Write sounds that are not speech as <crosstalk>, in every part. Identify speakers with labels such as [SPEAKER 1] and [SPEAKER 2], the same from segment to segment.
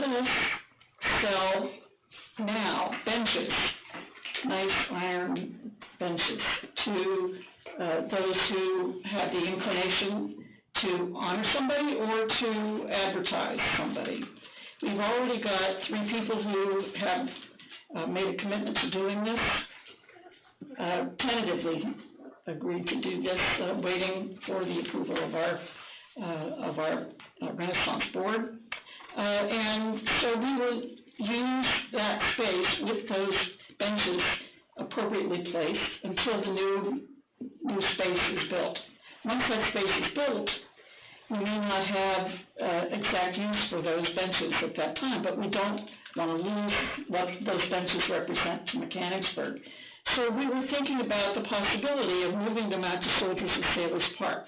[SPEAKER 1] to sell now benches, nice iron benches, to, uh, those who have the inclination to honor somebody or to advertise somebody. We've already got three people who have, uh, made a commitment to doing this, uh, tentatively agreed to do this, uh, waiting for the approval of our, uh, of our uh, Renaissance Board. Uh, and so we will use that space with those benches appropriately placed until the new, new space is built. Once that space is built, we may not have, uh, exact use for those benches at that time, but we don't wanna lose what those benches represent to Mechanicsburg. So we were thinking about the possibility of moving them out to Soldiers and Sailors Park.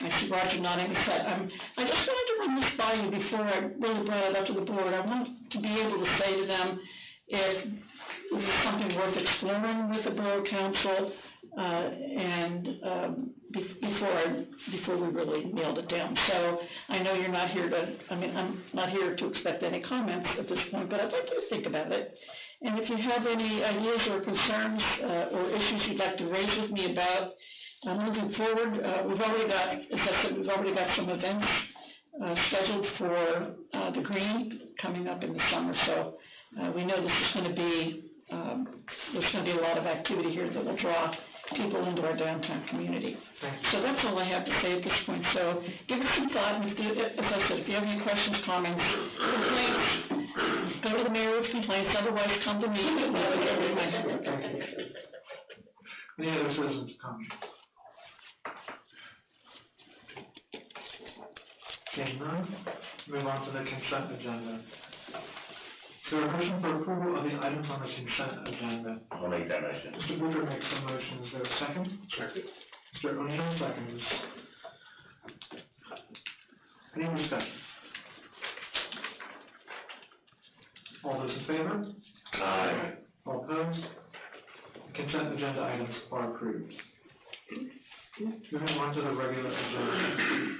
[SPEAKER 1] I see Roger nodding his head. Um, I just wanted to run this by you before I really brought it up to the board. I want to be able to say to them if this is something worth exploring with the Borough Council, uh, and, um, be- before I, before we really nailed it down. So I know you're not here to, I mean, I'm not here to expect any comments at this point, but I'd like you to think about it. And if you have any ideas or concerns, uh, or issues you'd like to raise with me about uh, moving forward, uh, we've already got, as I said, we've already got some events uh, scheduled for uh, the Green coming up in the summer, so uh, we know this is going to be, um, there's going to be a lot of activity here that will draw people into our downtown community. So that's all I have to say at this point, so give it some thought, and if you- as I said, if you have any questions, comments, complaints, go to the mayor with complaints, otherwise come to me.
[SPEAKER 2] Any other citizens comment? Seeing none, move on to the consent agenda. Is there a motion for approval of the items on the consent agenda?
[SPEAKER 3] I'll make that motion.
[SPEAKER 2] Mr. Booker makes a motion, is there a second? Second. Mr. O'Neill seconds. Any discussion? All those in favor?
[SPEAKER 3] Aye.
[SPEAKER 2] All opposed? Consent agenda items are approved. Moving on to the regular agenda.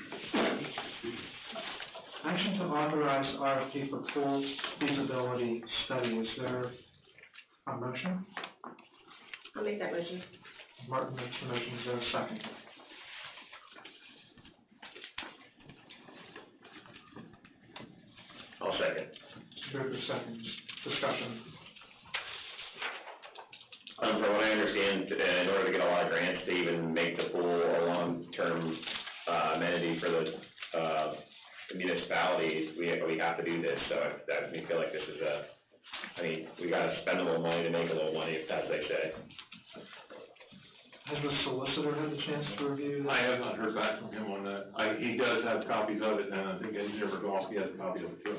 [SPEAKER 2] Action to authorize RFP for full feasibility study. Is there a motion?
[SPEAKER 4] I'll make that motion.
[SPEAKER 2] Martin makes the motion, is there a second?
[SPEAKER 3] I'll second.
[SPEAKER 2] Booker seconds. Discussion.
[SPEAKER 3] Um, from what I understand, uh, in order to get a lot of grants to even make the pool a long-term, uh, amenity for the, uh, municipalities, we, we have to do this, so I- that, we feel like this is a, I mean, we gotta spend a little money to make a little money, if that's what they say.
[SPEAKER 2] Has the solicitor had the chance to review?
[SPEAKER 5] I have not heard back from him on that. I, he does have copies of it, and I think Engineer Bogowski has a copy of it too.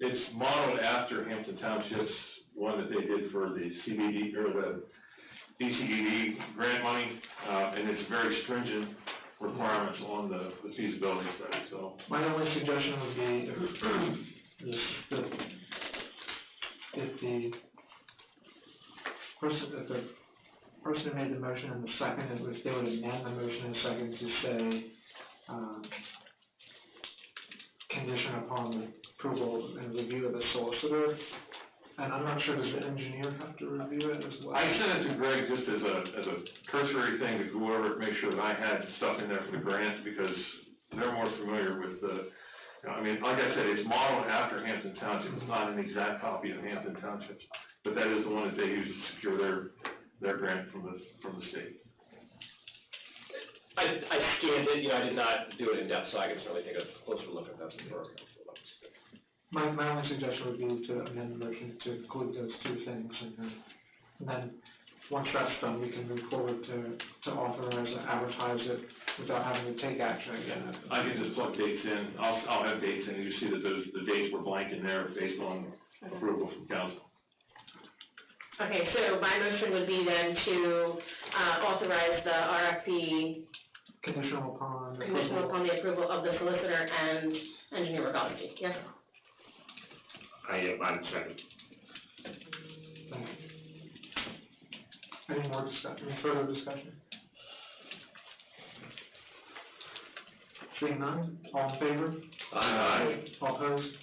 [SPEAKER 5] It's modeled after Hampton Township's one that they did for the CBD, or the DCDD grant money, uh, and it's very stringent requirements on the the feasibility study, so.
[SPEAKER 2] My only suggestion would be <clears throat> if, this- that, if the person, if the person who made the motion and the second, if they would amend the motion and second to say, um, condition upon the approval and review of the solicitor, and I'm not sure, does the engineer have to review it as well?
[SPEAKER 5] I sent it to Greg just as a, as a cursory thing to go over, it, make sure that I had stuff in there for the grant, because they're more familiar with the, you know, I mean, like I said, it's modeled after Hampton Township, it's not an exact copy of Hampton Township, but that is the one that they use to secure their, their grant from the, from the state.
[SPEAKER 6] I, I scanned it, you know, I did not do it in depth, so I can certainly take a closer look at that before.
[SPEAKER 2] My, my only suggestion would be to amend the motion to include those two things, and then, and then, once that's done, we can move forward to, to authorize and advertise it without having to take action again.
[SPEAKER 5] I can just plug dates in, I'll, I'll have dates in, you see that those, the dates were blank in there based on approval from council.
[SPEAKER 4] Okay, so my motion would be then to, uh, authorize the RFP
[SPEAKER 2] Conditional upon. approval.
[SPEAKER 4] conditional upon the approval of the solicitor and engineer Bogowski, yes?
[SPEAKER 3] I, I'm second.
[SPEAKER 2] Thank you. Any more discussion, any further discussion? Seeing none, all in favor?
[SPEAKER 6] Uh,
[SPEAKER 3] Aye.
[SPEAKER 2] All opposed?